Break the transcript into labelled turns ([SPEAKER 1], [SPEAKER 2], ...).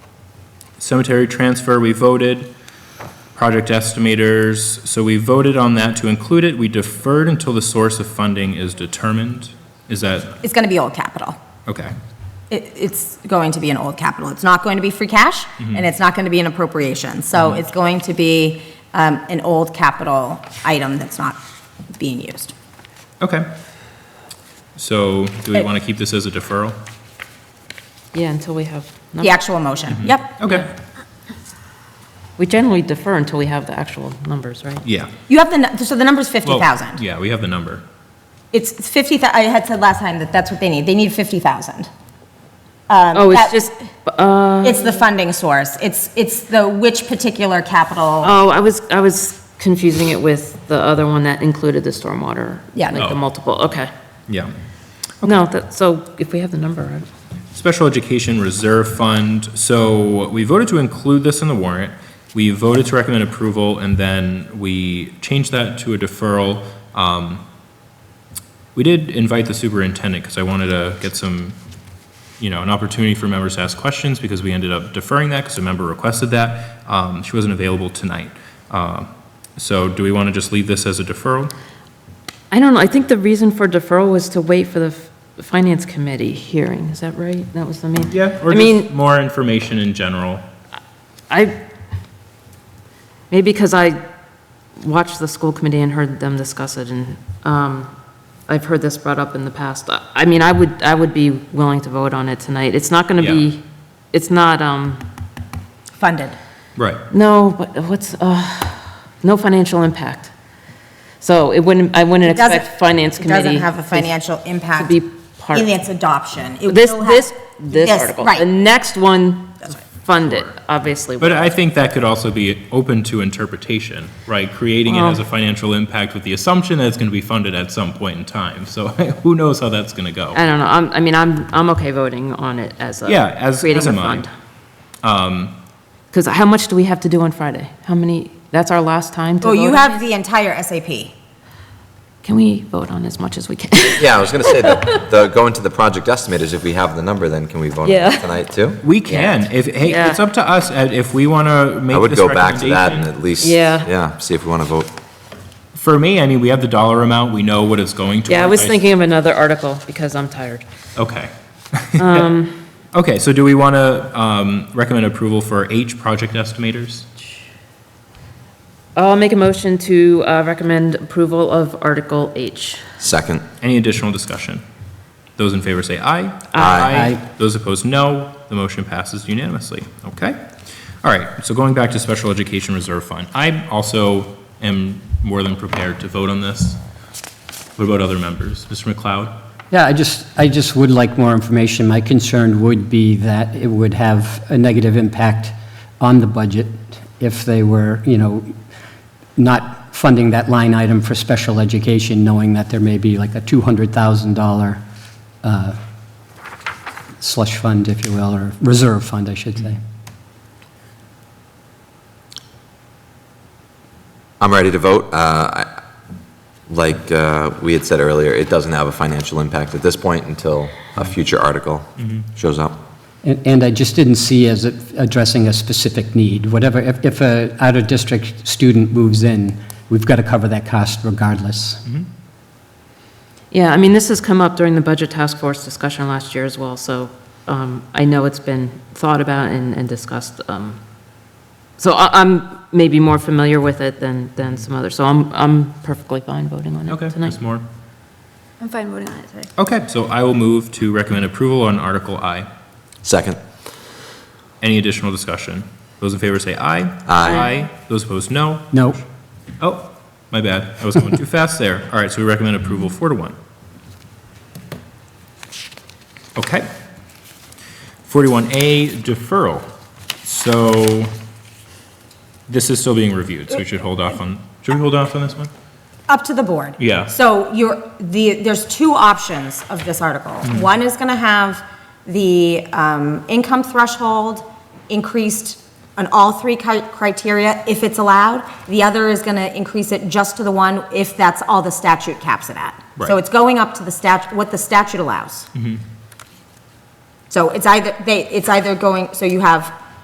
[SPEAKER 1] Cemetery transfer, we voted. Project estimators, so we voted on that to include it. We deferred until the source of funding is determined. Is that,
[SPEAKER 2] It's going to be old capital.
[SPEAKER 1] okay.
[SPEAKER 2] It, it's going to be an old capital. It's not going to be free cash,
[SPEAKER 3] Mm-hmm.
[SPEAKER 2] and it's not going to be an appropriation. So it's going to be um, an old capital item that's not being used.
[SPEAKER 1] Okay. So do we
[SPEAKER 2] It-
[SPEAKER 1] want to keep this as a deferral?
[SPEAKER 3] Yeah, until we have,
[SPEAKER 2] The actual motion,
[SPEAKER 3] Mm-hmm.
[SPEAKER 2] yep.
[SPEAKER 1] Okay,
[SPEAKER 3] we generally defer until we have the actual numbers, right?
[SPEAKER 1] yeah.
[SPEAKER 2] You have the, nu- so the number's
[SPEAKER 1] Well,
[SPEAKER 2] 50,000.
[SPEAKER 1] Yeah, we have the number.
[SPEAKER 2] It's it's 50, thou- I had said last time that that's what they need. They need 50,000.
[SPEAKER 3] Oh,
[SPEAKER 2] that-
[SPEAKER 3] it's just, uh,
[SPEAKER 2] It's the funding source. It's, it's the which particular capital,
[SPEAKER 3] oh, I was, I was confusing it with the other one that included the stormwater.
[SPEAKER 2] Yeah.
[SPEAKER 3] Like
[SPEAKER 1] Oh.
[SPEAKER 3] the multiple, okay.
[SPEAKER 1] Yeah.
[SPEAKER 3] No, that, so if we have the number, right?
[SPEAKER 1] Special Education Reserve Fund, so we voted to include this in the warrant. We voted to recommend approval, and then we changed that to a deferral. Um, We did invite the superintendent, because I wanted to get some, you know, an opportunity for members to ask questions, because we ended up deferring that, because a member requested that. Um, She wasn't available tonight. Uh, So do we want to just leave this as a deferral?
[SPEAKER 3] I don't know, I think the reason for deferral was to wait for the f- finance committee hearing, is that right? That was the main?
[SPEAKER 1] Or
[SPEAKER 3] I mean,
[SPEAKER 1] just more information in general?
[SPEAKER 3] I, maybe because I watched the school committee and heard them discuss it, and um, I've heard this brought up in the past. I I mean, I would, I would be willing to vote on it tonight. It's not going to
[SPEAKER 1] Yeah.
[SPEAKER 3] be, it's not, um,
[SPEAKER 2] funded.
[SPEAKER 1] Right.
[SPEAKER 3] no, but what's, uh, no financial impact. So it wouldn't, I wouldn't
[SPEAKER 2] It doesn't-
[SPEAKER 3] expect finance
[SPEAKER 2] It doesn't
[SPEAKER 3] committee.
[SPEAKER 2] have a financial impact.
[SPEAKER 3] be part-
[SPEAKER 2] In its adoption. It
[SPEAKER 3] This,
[SPEAKER 2] will have-
[SPEAKER 3] this, this article. The
[SPEAKER 2] Right,
[SPEAKER 3] next one, fund it, obviously.
[SPEAKER 1] But I think that could also be open to interpretation, right? Creating it as a financial impact with the assumption that it's going to be funded at some point in time. So who knows how that's going to go?
[SPEAKER 3] I don't know, I'm, I mean, I'm, I'm okay voting on it as a.
[SPEAKER 1] Yeah, as- as
[SPEAKER 3] Creating a
[SPEAKER 1] am I. Um,
[SPEAKER 3] fund. Because how much do we have to do on Friday? How many, that's our last time to
[SPEAKER 2] well,
[SPEAKER 3] vote?
[SPEAKER 2] you
[SPEAKER 3] on
[SPEAKER 2] have
[SPEAKER 3] it?
[SPEAKER 2] the entire SAP.
[SPEAKER 3] Can we vote on as much as we can?
[SPEAKER 4] Yeah, I was going to say that, the, going to the project estimate is if we have the number, then can we vote on
[SPEAKER 3] Yeah.
[SPEAKER 4] it tonight too?
[SPEAKER 1] We can, if, hey,
[SPEAKER 3] Yeah.
[SPEAKER 1] it's up to us, Ed, if we want to
[SPEAKER 4] I
[SPEAKER 1] make
[SPEAKER 4] would
[SPEAKER 1] this
[SPEAKER 4] go back to that and
[SPEAKER 1] recommendation.
[SPEAKER 4] at least,
[SPEAKER 3] Yeah.
[SPEAKER 4] yeah, see if we want to vote.
[SPEAKER 1] For me, I mean, we have the dollar amount, we know what it's going to.
[SPEAKER 3] Yeah, I was thinking of another article because I'm tired.
[SPEAKER 1] Okay.
[SPEAKER 3] um,
[SPEAKER 1] Okay, so do we want to recommend approval for H, project estimators?
[SPEAKER 3] I'll make a motion to uh, recommend approval of Article H.
[SPEAKER 4] Second,
[SPEAKER 1] Any additional discussion? Those in favor say aye. Those opposed, no. The motion passes unanimously. Okay? All right, so going back to Special Education Reserve Fund, I also am more than prepared to vote on this. What about other members? Mr. McLeod?
[SPEAKER 5] Yeah, I just, I just would like more information. My concern would be that it would have a negative impact on the budget if they were, you know, not funding that line item for special education, knowing that there may be like a $200,000 uh, slush fund, if you will, or reserve fund, I should say.
[SPEAKER 4] I'm ready to vote. Uh, I- Like uh, we had said earlier, it doesn't have a financial impact at this point until a future article
[SPEAKER 1] Mm-hmm.
[SPEAKER 4] shows up.
[SPEAKER 5] And and I just didn't see as it addressing a specific need. Whatever, if if a out-of-district student moves in, we've got to cover that cost regardless.
[SPEAKER 3] Yeah, I mean, this has come up during the Budget Task Force discussion last year as well, so um, I know it's been thought about and and discussed. um, So I- I'm maybe more familiar with it than, than some others, so I'm, I'm perfectly fine voting on
[SPEAKER 1] Okay,
[SPEAKER 3] it tonight.
[SPEAKER 1] Ms. Moore?
[SPEAKER 6] I'm fine voting on it today.
[SPEAKER 1] Okay, so I will move to recommend approval on Article I.
[SPEAKER 4] Second,
[SPEAKER 1] Any additional discussion? Those in favor say aye.
[SPEAKER 4] Aye.
[SPEAKER 1] Those opposed, no.
[SPEAKER 5] No,
[SPEAKER 1] Oh, my bad. I was going too fast there. All right, so we recommend approval four to one. Okay. Forty-one A, deferral. So this is still being reviewed, so we should hold off on, should we hold off on this one?
[SPEAKER 2] Up to the board.
[SPEAKER 1] Yeah.
[SPEAKER 2] So you're, the, there's two options of this article.
[SPEAKER 1] Hmm.
[SPEAKER 2] One is gonna have the, um, income threshold increased on all three cri- criteria if it's allowed. The other is gonna increase it just to the one if that's all the statute caps it at.
[SPEAKER 1] Right. Mm-hmm.
[SPEAKER 2] So it's going up to the stat, what the statute allows. So it's either, they, it's either going, so you have